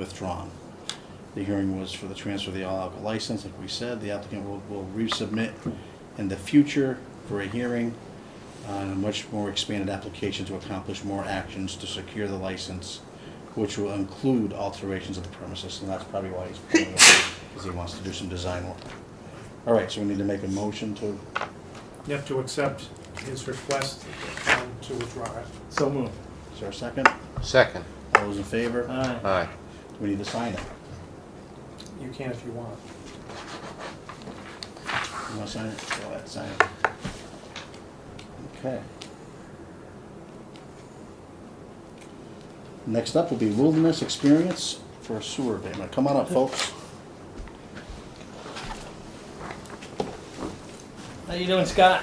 withdrawn. The hearing was for the transfer of the all alcohol license, like we said, the applicant will, will resubmit in the future for a hearing on a much more expanded application to accomplish more actions to secure the license, which will include alterations of the premises, and that's probably why he's, pulling it, because he wants to do some design work. All right, so we need to make a motion to, You have to accept his request um, to withdraw it. So moved. is there a second? Second. All those in favor? Aye. Aye. We need to sign it. You can if you want. You want to sign it? Go ahead, sign it. Okay. Next up will be wilderness experience for a sewer abatement. Come on up, folks. How you doing, Scott?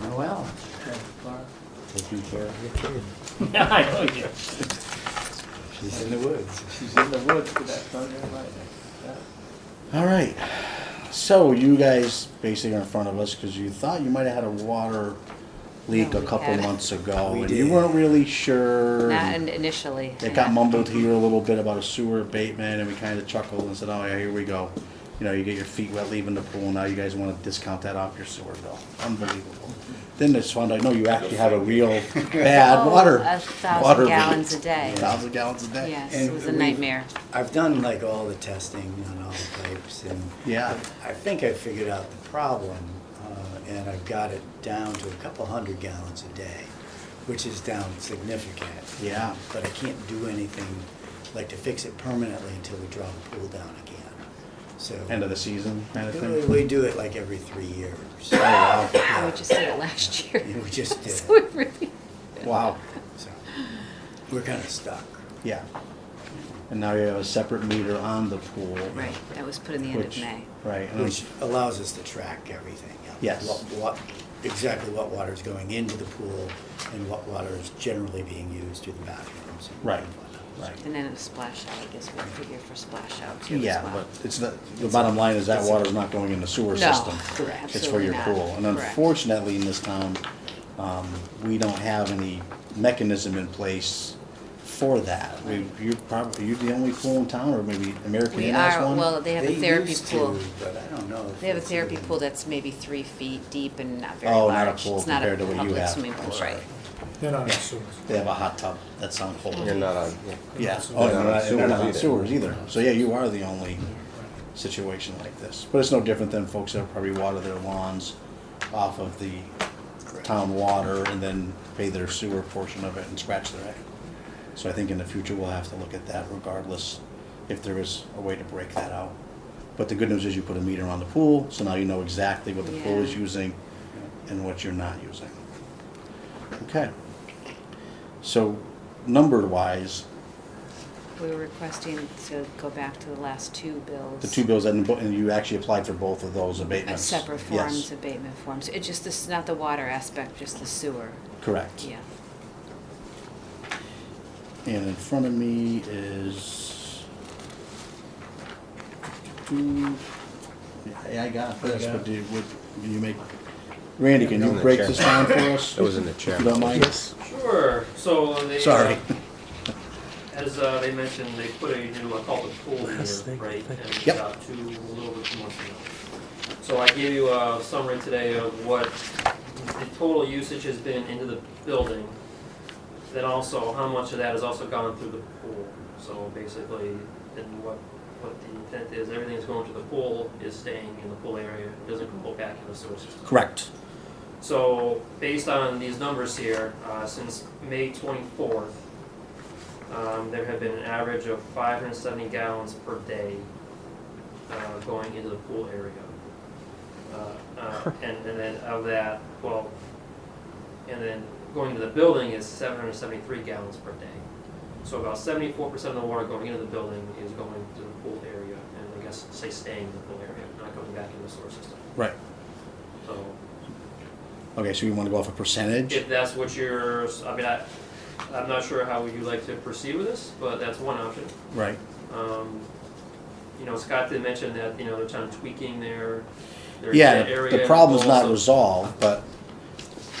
Doing well. Taking care of you. Yeah, I know you. She's in the woods. She's in the woods with that thunder and lightning. All right. So you guys basically are in front of us because you thought you might have had a water leak No, a we couple had it. months ago. We and You did. weren't really sure. Not in- initially. It got yeah. mumbled here a little bit about a sewer abatement, and we kind of chuckled and said, "Oh yeah, here we go." You know, you get your feet wet leaving the pool. Now you guys want to discount that off your sewer bill? Unbelievable. Then they just found out, no, you actually have a real bad Oh, water A water thousand leak. gallons a day. Thousand gallons a day. Yes, And it was a we- nightmare. I've done like all the testing on all the pipes and Yeah. I think I figured out the problem uh, and I've got it down to a couple hundred gallons a day, which is down significant. Yeah. But I can't do anything like to fix it permanently until we draw the pool down again. So. End of the season kind of We- thing. We do it like every three years. Oh, wow. We just did it last year. Yeah, we just did So it really, Wow. So we're kind of stuck. Yeah. And now you have a separate meter on the pool. right, that was put in the end of which- May. Right. and Which allows us to track everything. yeah. Yes. What, what, exactly what water is going into the pool and what water is generally being used through the bathrooms. and Right, whatnot. right. And then it was splash out, I guess we figure for splash out too as Yeah, well. but it's not, the bottom line is that water's not going in the sewer No, system. correct. It's for your Absolutely not. pool. And Correct. unfortunately, in this town, um, we don't have any mechanism in place for that. We, you're probably, you're the only pool in town, or maybe American We Inn has are, one? well, they have a therapy used to, pool. But I don't know. if They have a it's therapy even- pool that's maybe three feet deep and not very Oh, large. not a pool It's not compared to what you public have. swimming I'm pool, sorry. right. They're not assuming. They have a hot tub that's on hold. You're not on, yeah. Yeah, Sewers. oh, and they're not- and they're not on Sewers sewers either. So, yeah, you are the only situation like this. But it's no different than folks that probably water their lawns off of the town water and then pay their sewer portion of it and scratch their head. So I think in the future, we'll have to look at that regardless, if there is a way to break that out. But the good news is you put a meter on the pool, so now you know exactly what the pool is Yeah. using and what you're not using. Okay. So numbered wise, We were requesting to go back to the last two bills. The two bills, and bo- and you actually applied for both of those Uh, abatements? Separate Yes, forms, abatement forms. It just, this, not the water aspect, just the sewer. Correct. Yeah. And in front of me is... Yeah, I got this, but do, you- would, do you make, Randy, can It was you in the break chair. this down for us? It was in the chair. If you don't mind? Sure, so they. uh, Sorry. As uh, they mentioned, they put a new, uh, I call it pool here, right? And Yep. about two, a little bit two months ago. So I gave you a summary today of what the total usage has been into the building. Then also, how much of that has also gone through the pool. So basically, and what, what the intent is, everything that's going to the pool is staying in the pool area, It doesn't go back in the sewer system. Correct. So, based on these numbers here, uh, since May 24th, um, there have been an average of 570 gallons per day uh, going into the pool area. Uh, uh, And and then of that, well, and then going into the building is 773 gallons per day. So about 74% of the water going into the building is going to the pool area, and I guess, say, staying in the pool area, not going back in the sewer system. Right. So, Okay, so you want to go off a percentage? if that's what you're, I mean, I, I'm not sure how would you like to proceed with this, but that's one option. Right. Um, you know, Scott did mention that, you know, they're kind of tweaking their, their Yeah, area. the problem's not goals, resolved, but,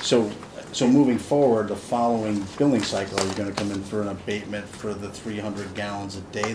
so, So moving forward, the following billing cycle, are you gonna come in for an abatement for the three hundred gallons a day